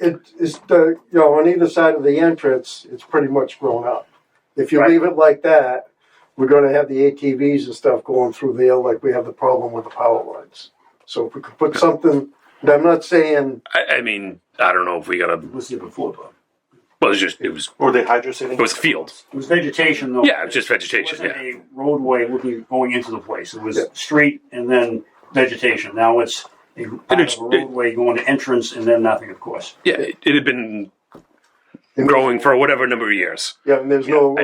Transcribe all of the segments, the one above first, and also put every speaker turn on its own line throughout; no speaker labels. it is the you know on either side of the entrance it's pretty much grown up if you
Right.
leave it like that we're going to have the atvs and stuff going through there like we have the problem with the power lines so if we could put something and i'm not saying
I, I mean, I don't know if we got to.
was here before, Bob.
Well, it was just it was
Or they hydrosating?
it was field.
It was vegetation though.
Yeah, it was just vegetation.
It
Yeah,
wasn't a roadway looking, going into the place. It was
Yeah.
street and then vegetation. Now it's a kind of
it's-
a roadway going to entrance and then nothing, of course.
yeah. It, it had been
And-
growing for whatever number of years.
yeah and there's no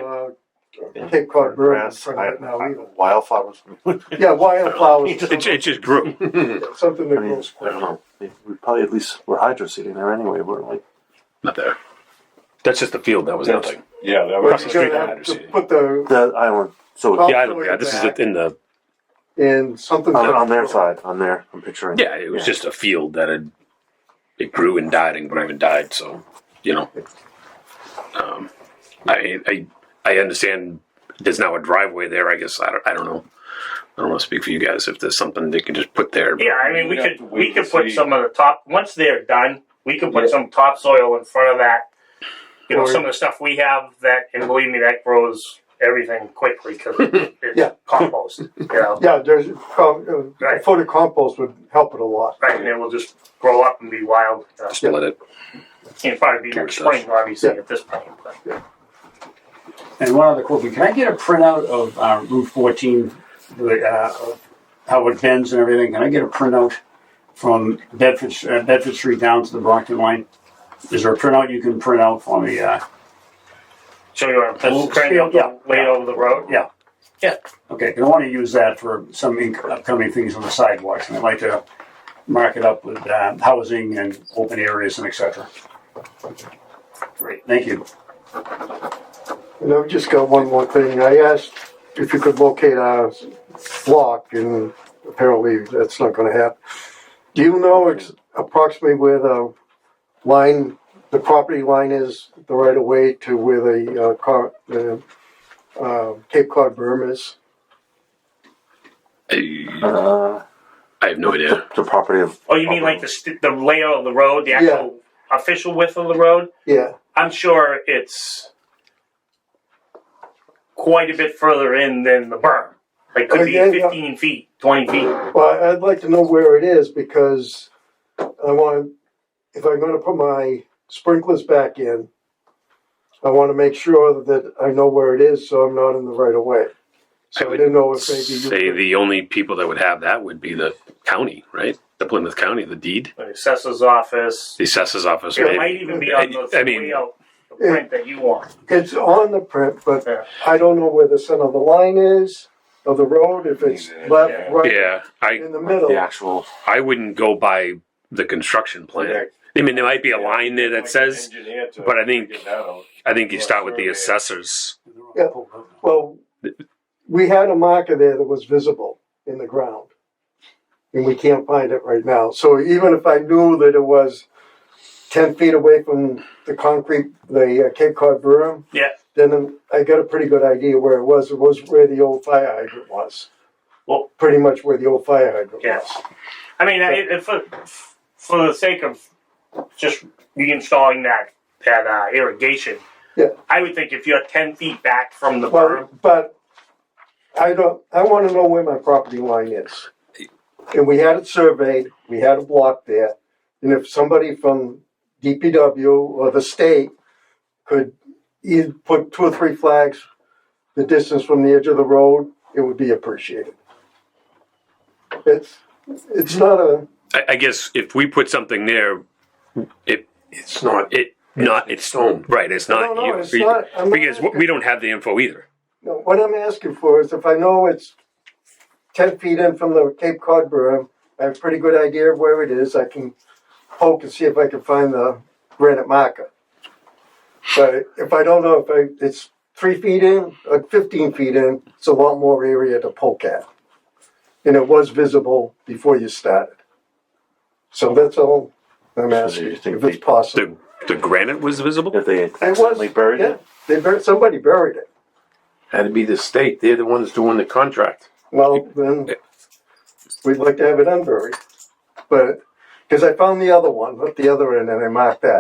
uh, cape cod bird in
Grass,
front of it now
I-
either
I- wildflowers. I
yeah wildflowers
It, it just grew.
something that
mean,
grows
I don't
quick
know. Maybe We probably at least were hydroseeding there anyway, weren't we?
Not there. That's just the field. That was
That's-
nothing.
Yeah, that
But
was
Across
you're
the street
gonna
from
have to
Hydroseeding.
put the
The island, so
Oh.
Yeah, I don't. Yeah, this is
Back.
in the.
and something
on, on their side, on there, I'm picturing.
Yeah, it was just a field that had it grew and died and grew and died. So you know, um, I I I understand. There's now a driveway there. I guess I don't. I don't know. I don't want to speak for you guys. If there's something they can just put there.
Yeah, I mean, we
We'd have
could
to
we
wait
could
to
put
see.
some of the top once they're done. We could put
Yeah.
some topsoil in front of that. You know,
Or-
some of the stuff we have that, and believe me, that grows everything quickly because it's
Yeah.
compost. You know,
yeah there's com- uh, a
Right.
foot of compost would help it a lot
right? And it will just grow up and be wild. You know.
Just let it.
It'll probably be next
Sure it does.
spring, obviously,
Yeah.
at this point. But.
And one other quick one. Can I get a printout of uh, Route 14, the, uh, how it bends and everything? Can I get a printout from Bedford, uh, Bedford Street down to the Brockton line? Is there a printout you can print out for me? Uh,
So you want to
Well,
put cranny
yeah,
up the
yeah.
laid over the road?
Yeah. okay, 'cause I want to use that for some inc- upcoming things on the sidewalks, and I'd like to mark it up with uh, housing and open areas and et cetera. Great, thank you.
And I've just got one more thing. I asked if you could locate our block, and apparently that's not going to happen. Do you know ex- approximately where the line, the property line is, the right of way to where the uh, car, the uh, Cape Cod berm is?
I,
Uh,
I have no idea.
the, the property of.
Oh, you mean like the st- the layout of the road, the
Yeah.
actual official width of the road?
Yeah,
I'm sure it's quite a bit further in than the berm. Like could be
Uh, Yeah, yeah.
15 feet, 20 feet.
well, I'd like to know where it is because I want, if I'm going to put my sprinklers back in, I want to make sure that I know where it is, so I'm not in the right of way.
I
So I
would
didn't know if maybe you.
say the only people that would have that would be the county, right? The Plymouth County, the deed,
The assessor's office.
the assessor's office.
It
maybe.
might even be on the
I mean-
layout, the print that you want.
It's on the print, but
Yeah.
I don't know where the center of the line is of the road, if it's
Yeah.
left, right,
Yeah, I
in the middle.
The actual.
I wouldn't go by the construction plan. I mean, there might be a line there that says but I think- I think you start with the assessors.
Yeah. Well, we had a marker there that was visible in the ground, and we can't find it right now. So even if I knew that it was ten feet away from the concrete, the uh, Cape Cod berm,
Yeah.
then I got a pretty good idea where it was. It was where the old fire hydrant was.
Well-
pretty much where the old fire hydrant
Yeah.
was.
I mean, I, if for, for the sake of just reinstalling that that uh, irrigation,
Yeah.
I would think if you're ten feet back from the berm,
Well, but I don't, I wanna know where my property line is. And we had it surveyed, we had a block there, and if somebody from DPW or the state could either put two or three flags the distance from the edge of the road, it would be appreciated. It's, it's not a,
I, I guess if we put something there,
It's not.
it not it's
stone.
right. It's
no,
not
no,
you
it's not. I'm not
because we don't have the info either.
No, what I'm asking for is if I know it's ten feet in from the Cape Cod berm, I have a pretty good idea of where it is, I can poke and see if I can find the granite marker. But if I don't know if I, it's three feet in, or fifteen feet in, it's a lot more area to poke at. And it was visible before you started. So that's all I'm
So
asking,
you
if
think
it's
they-
possible.
The the granite was visible.
If they had
was,
accidentally buried
Yeah,
it.
they buried, somebody buried it.
Had to be the state. They're the ones doing the contract.
Well, then, we'd like to have it unburied, but, because I found the other one, at the other end, and I marked that.